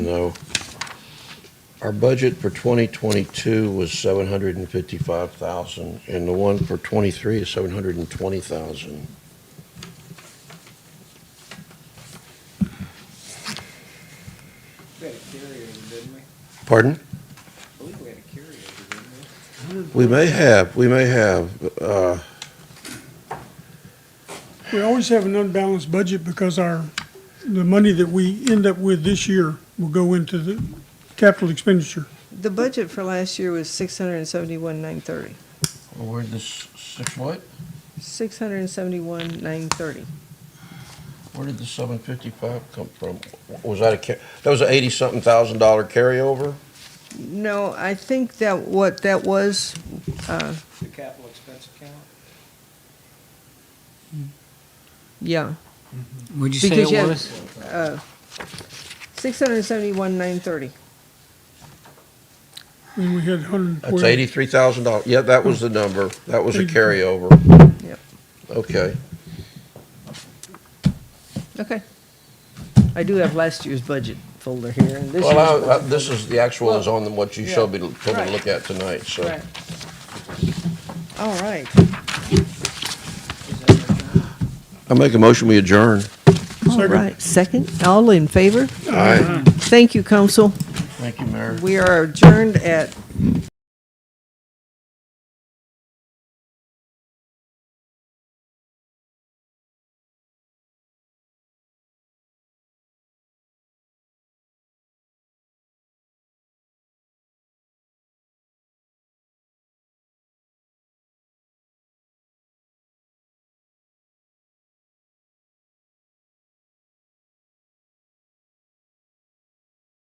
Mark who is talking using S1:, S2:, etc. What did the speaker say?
S1: No. Our budget for 2022 was 755,000, and the one for '23 is 720,000.
S2: We had a carryover, didn't we? I
S1: Pardon?
S2: believe we had a carryover, didn't we?
S1: We may have, we may have, uh,
S3: We always have an unbalanced budget because our, the money that we end up with this year will go into the capital expenditure.
S4: The budget for last year was six hundred and seventy-one, nine thirty.
S1: where'd this, six what?
S4: Six hundred and seventy-one, nine thirty.
S1: Where did the 755 come from? Was that a, ca- that was an 80-something thousand dollar carryover?
S4: No, I think that what that was, uh,
S2: The capital expense account?
S4: yeah,
S5: Mm-hmm. Would you say
S4: Because you
S5: it
S4: have-
S5: was?
S4: uh, six hundred and seventy-one, nine thirty.
S3: And we had hundred and
S1: That's
S3: twelve.
S1: $83,000, yeah, that was the number, that was a
S3: Eighty-
S1: carryover.
S4: Yep.
S1: Okay,
S4: Okay. I do have last year's budget folder here and this year's.
S1: well, I- I-
S4: budget
S1: this is, the actual is on the- what you showed me, told me to
S4: Right.
S1: look at tonight, so.
S4: folder. Right. All right.
S2: Is that right?
S1: I make a motion, we adjourn.
S4: All right. Second, all in favor?
S1: Aye.
S4: Thank you, council.
S1: Thank you, Mayor.
S4: We are adjourned at